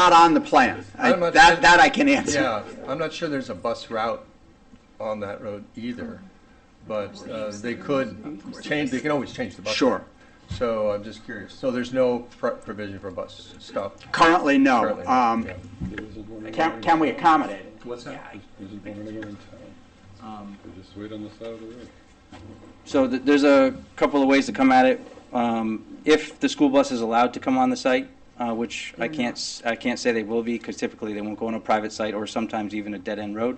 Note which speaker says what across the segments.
Speaker 1: not on the plan. I-
Speaker 2: I'm not
Speaker 1: That,
Speaker 2: sure-
Speaker 1: that I can answer.
Speaker 2: Yeah, I'm not sure there's a bus route on that road either, but uh, they could change, they can always change the bus.
Speaker 1: Sure.
Speaker 2: route. So I'm just curious. So there's no pr- provision for bus stop
Speaker 1: Currently, no.
Speaker 2: currently?
Speaker 1: Um,
Speaker 2: Yeah.
Speaker 1: Can, can we accommodate it?
Speaker 3: What's that?
Speaker 4: There's just one anywhere in town. They just wait on the side of the road.
Speaker 5: So th- there's a couple of ways to come at it. Um, If the school bus is allowed to come on the site, uh, which I can't, s- I can't say they will be, because typically they won't go on a private site or sometimes even a dead-end road.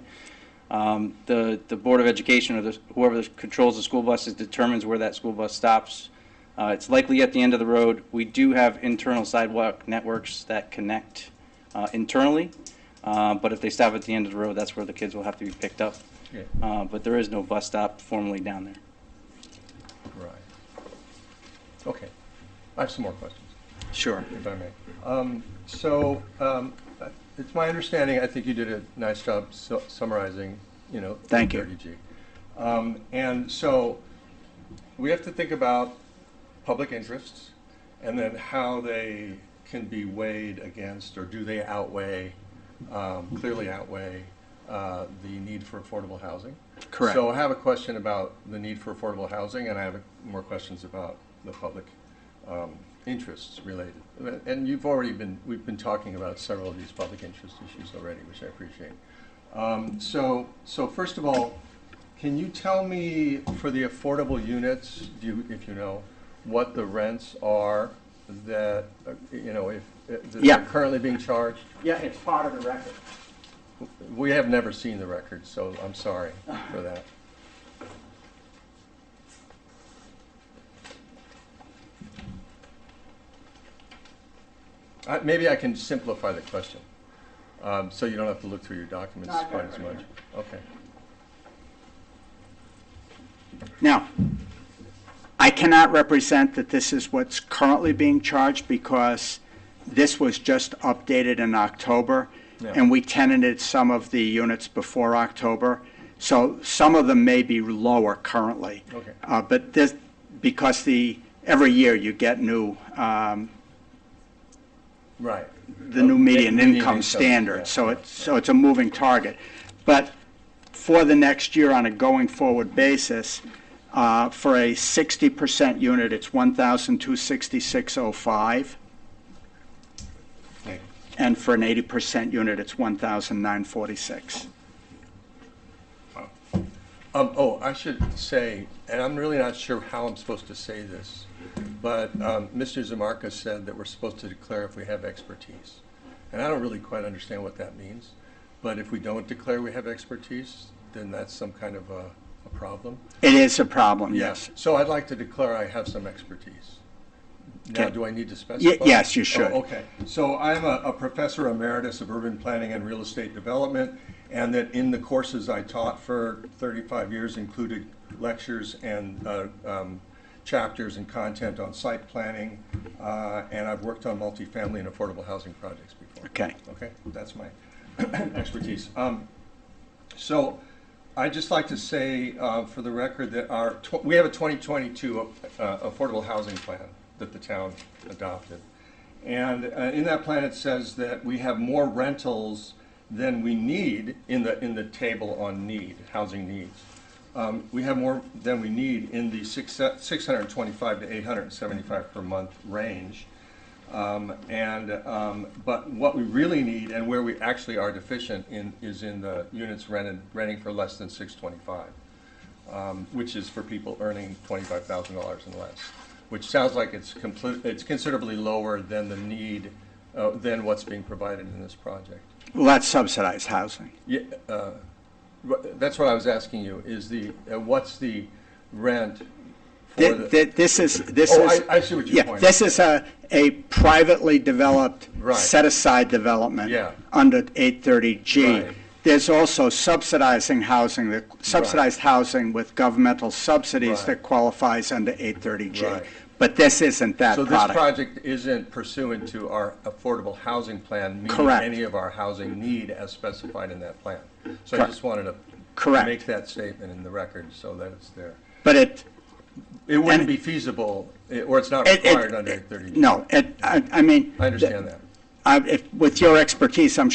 Speaker 5: Um, The, the Board of Education or the- whoever controls the school buses determines where that school bus stops. Uh, It's likely at the end of the road. We do have internal sidewalk networks that connect uh, internally, uh, but if they stop at the end of the road, that's where the kids will have to be picked up.
Speaker 2: Yeah,
Speaker 5: Uh, But there is no bus stop formally down there.
Speaker 2: right. Okay. I have some more questions.
Speaker 1: Sure.
Speaker 2: if I may. Um, So, um, it's my understanding, I think you did a nice job su- summarizing, you know.
Speaker 1: Thank you.
Speaker 2: 30G. Um, And so, we have to think about public interests, and then how they can be weighed against, or do they outweigh, um, clearly outweigh uh, the need for affordable housing?
Speaker 1: Correct.
Speaker 2: So I have a question about the need for affordable housing, and I have more questions about the public um, interests related. And you've already been, we've been talking about several of these public interest issues already, which I appreciate. Um, So, so first of all, can you tell me for the affordable units, do you, if you know, what the rents are that, uh, you know, if, that
Speaker 1: Yeah.
Speaker 2: are currently being charged?
Speaker 1: Yeah, it's part of the record.
Speaker 2: We have never seen the record, so I'm sorry for that. I- Uh, Maybe I can simplify the question, um, so you don't have to look through your documents
Speaker 1: No, I've got
Speaker 2: quite
Speaker 1: it
Speaker 2: as
Speaker 1: right
Speaker 2: much. Okay.
Speaker 1: Now, I cannot represent that this is what's currently being charged because this was just updated in October,
Speaker 2: Yeah.
Speaker 1: and we tenanted some of the units before October, so some of them may be lower currently.
Speaker 2: Okay.
Speaker 1: Uh, But this, because the, every year you get new, um,
Speaker 2: Right.
Speaker 1: the
Speaker 2: Oh,
Speaker 1: new median income
Speaker 2: yeah,
Speaker 1: standard, so
Speaker 2: yeah,
Speaker 1: it's, so it's a moving target. But for the next year on a going-forward basis, uh, for a 60% unit, it's 1,266.05,
Speaker 2: okay.
Speaker 1: and for an 80% unit, it's 1,946.
Speaker 2: Um, oh, I should say, and I'm really not sure how I'm supposed to say this, but, um, Mr. Zamarka said that we're supposed to declare if we have expertise. And I don't really quite understand what that means, but if we don't declare we have expertise, then that's some kind of a, a problem.
Speaker 1: It is a problem, yes.
Speaker 2: So I'd like to declare I have some expertise. Now,
Speaker 1: Okay.
Speaker 2: do I need to specify?
Speaker 1: yes, you should.
Speaker 2: Oh, okay. So I'm a, a professor emeritus of urban planning and real estate development, and that in the courses I taught for thirty-five years included lectures and, uh, um, chapters and content on site planning, uh, and I've worked on multifamily and affordable housing projects before.
Speaker 1: Okay.
Speaker 2: Okay, that's my expertise. Um, so I'd just like to say, uh, for the record, that our, tw- we have a 2022 uh, Affordable Housing Plan that the town adopted. And uh, in that plan, it says that we have more rentals than we need in the, in the table on need, housing needs. Um, We have more than we need in the six 625 to 875 per month range. Um, And, um, but what we really need and where we actually are deficient in, is in the units rented, renting for less than six twenty-five, um, which is for people earning twenty-five thousand dollars and less, which sounds like it's complete, it's considerably lower than the need, uh, than what's being provided in this project.
Speaker 1: Well, that's subsidized housing.
Speaker 2: Yeah, uh, wh- that's what I was asking you, is the, uh, what's the rent for
Speaker 1: Thi- thi-
Speaker 2: the?
Speaker 1: This is, this is.
Speaker 2: Oh, I- I see what your
Speaker 1: yeah,
Speaker 2: point
Speaker 1: This is a, a privately developed,
Speaker 2: Right.
Speaker 1: set-aside development.
Speaker 2: Yeah.
Speaker 1: Under 830G.
Speaker 2: Right.
Speaker 1: There's also subsidizing housing, that- subsidized housing with governmental subsidies
Speaker 2: Right.
Speaker 1: that qualifies under 830G.
Speaker 2: Right.
Speaker 1: But this isn't that
Speaker 2: So this
Speaker 1: product.
Speaker 2: project isn't pursuant to our affordable housing plan, meeting
Speaker 1: Correct.
Speaker 2: any of our housing need as specified in that plan. So I
Speaker 1: Correct.
Speaker 2: just wanted to
Speaker 1: Correct.
Speaker 2: make that statement in the record so that it's there.
Speaker 1: But it,
Speaker 2: It wouldn't
Speaker 1: And-
Speaker 2: be feasible, eh, or it's not
Speaker 1: it,
Speaker 2: required under
Speaker 1: it,
Speaker 2: 830.
Speaker 1: no, it, I, I mean.
Speaker 2: I understand that.
Speaker 1: I- if- with your expertise, I'm